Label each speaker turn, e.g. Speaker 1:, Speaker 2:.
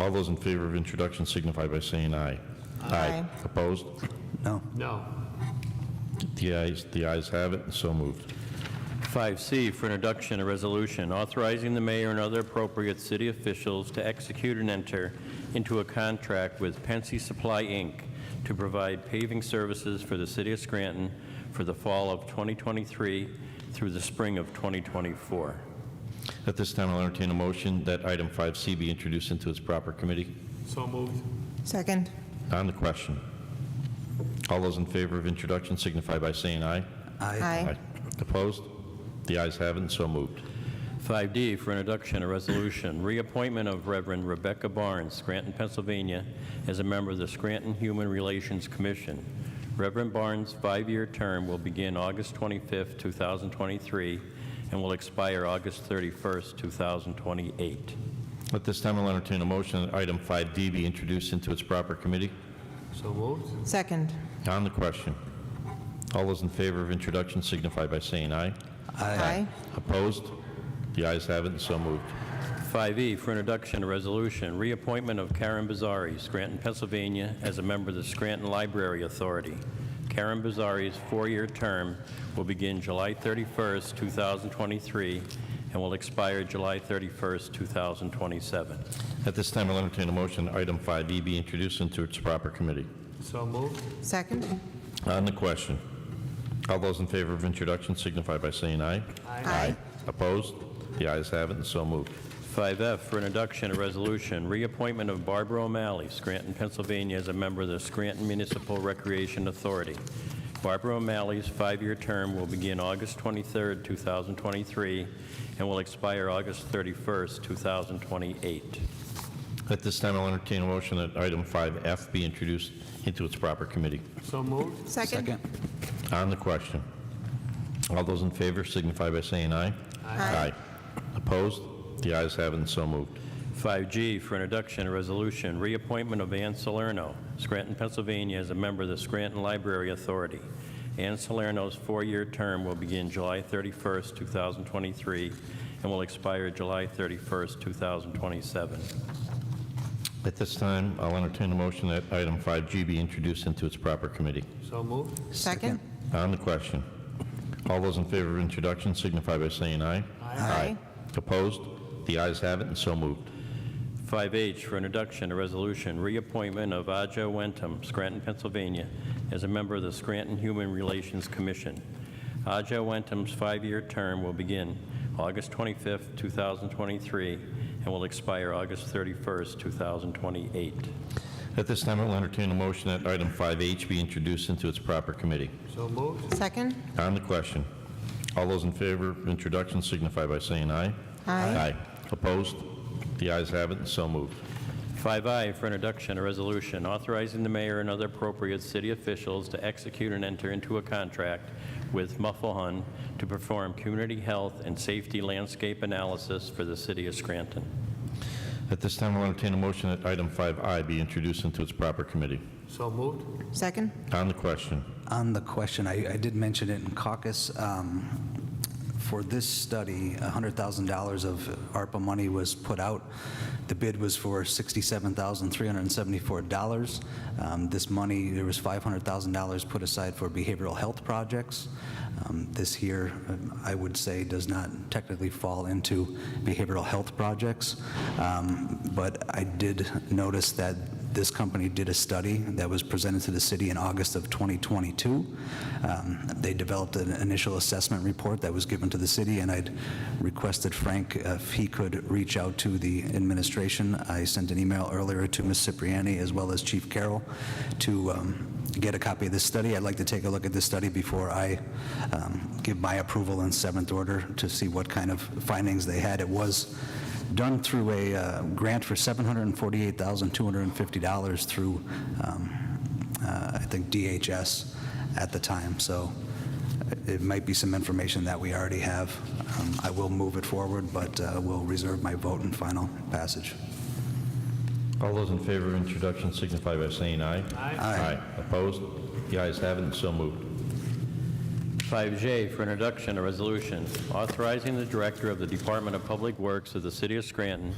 Speaker 1: All those in favor of introduction signify by saying aye.
Speaker 2: Aye.
Speaker 1: Opposed?
Speaker 3: No.
Speaker 4: No.
Speaker 1: The ayes, the ayes have it, and so moved.
Speaker 5: 5C for introduction, a resolution authorizing the mayor and other appropriate city officials to execute and enter into a contract with Pensy Supply, Inc. to provide paving services for the city of Scranton for the fall of 2023 through the spring of 2024.
Speaker 1: At this time, I'll entertain a motion that item 5C be introduced into its proper committee.
Speaker 4: So moved.
Speaker 2: Second.
Speaker 1: On the question, all those in favor of introduction signify by saying aye.
Speaker 2: Aye.
Speaker 1: Opposed? The ayes have it, and so moved.
Speaker 5: 5D for introduction, a resolution, reappointment of Reverend Rebecca Barnes, Scranton, Pennsylvania, as a member of the Scranton Human Relations Commission. Reverend Barnes' five-year term will begin August 25, 2023, and will expire August 31, 2028.
Speaker 1: At this time, I'll entertain a motion that item 5D be introduced into its proper committee.
Speaker 4: So moved.
Speaker 2: Second.
Speaker 1: On the question, all those in favor of introduction signify by saying aye.
Speaker 2: Aye.
Speaker 1: Opposed? The ayes have it, and so moved.
Speaker 5: 5E E for introduction, a resolution, reappointment of Karen Bazari, Scranton, Pennsylvania, as a member of the Scranton Library Authority. Karen Bazari's four-year term will begin July 31st, 2023, and will expire July 31st, 2027.
Speaker 1: At this time, I'll entertain a motion that item 5E be introduced into its proper committee.
Speaker 4: So moved.
Speaker 2: Second.
Speaker 1: On the question, all those in favor of introduction signify by saying aye.
Speaker 2: Aye.
Speaker 1: Opposed? The ayes have it, and so moved.
Speaker 5: 5F for introduction, a resolution, reappointment of Barbara O'Malley, Scranton, Pennsylvania, as a member of the Scranton Municipal Recreation Authority. Barbara O'Malley's five-year term will begin August 23, 2023, and will expire August 31, 2028.
Speaker 1: At this time, I'll entertain a motion that item 5F be introduced into its proper committee.
Speaker 4: So moved.
Speaker 2: Second.
Speaker 1: On the question, all those in favor signify by saying aye.
Speaker 2: Aye.
Speaker 1: Opposed? The ayes have it, and so moved.
Speaker 5: 5G for introduction, a resolution, reappointment of Ann Salerno, Scranton, Pennsylvania, as a member of the Scranton Library Authority. Ann Salerno's four-year term will begin July 31st, 2023, and will expire July 31st, 2027.
Speaker 1: At this time, I'll entertain a motion that item 5G be introduced into its proper committee.
Speaker 4: So moved.
Speaker 2: Second.
Speaker 1: On the question, all those in favor of introduction signify by saying aye.
Speaker 2: Aye.
Speaker 1: Opposed? The ayes have it, and so moved.
Speaker 5: 5H for introduction, a resolution, reappointment of Aja Wentham, Scranton, Pennsylvania, as a member of the Scranton Human Relations Commission. Aja Wentham's five-year term will begin August 25, 2023, and will expire August 31, 2028.
Speaker 1: At this time, I'll entertain a motion that item 5H be introduced into its proper committee.
Speaker 4: So moved.
Speaker 2: Second.
Speaker 1: On the question, all those in favor of introduction signify by saying aye.
Speaker 2: Aye.
Speaker 1: Opposed? The ayes have it, and so moved.
Speaker 5: 5I for introduction, a resolution authorizing the mayor and other appropriate city officials to execute and enter into a contract with Muffelhun to perform community health and safety landscape analysis for the city of Scranton.
Speaker 1: At this time, I'll entertain a motion that item 5I be introduced into its proper committee.
Speaker 4: So moved.
Speaker 2: Second.
Speaker 1: On the question,
Speaker 3: On the question, I, I did mention it in caucus. um, For this study, $100,000 of ARPA money was put out. The bid was for $67,374. Um, This money, there was $500,000 put aside for behavioral health projects. Um, This here, um, I would say, does not technically fall into behavioral health projects. Um, But I did notice that this company did a study that was presented to the city in August of 2022. Um, They developed an initial assessment report that was given to the city, and I'd requested Frank if he could reach out to the administration. I sent an email earlier to Ms. Cipriani as well as Chief Carroll to um, get a copy of this study. I'd like to take a look at this study before I um, give my approval in seventh order to see what kind of findings they had. It was done through a uh, grant for $748,250 through, um, uh, I think, DHS at the time. So uh, it might be some information that we already have. Um, I will move it forward, but uh, will reserve my vote in final passage.
Speaker 1: all those in favor of introduction signify by saying aye. Aye. Opposed? The ayes have it, and so moved.
Speaker 5: 5J for introduction, a resolution authorizing the Director of the Department of Public Works of the City of Scranton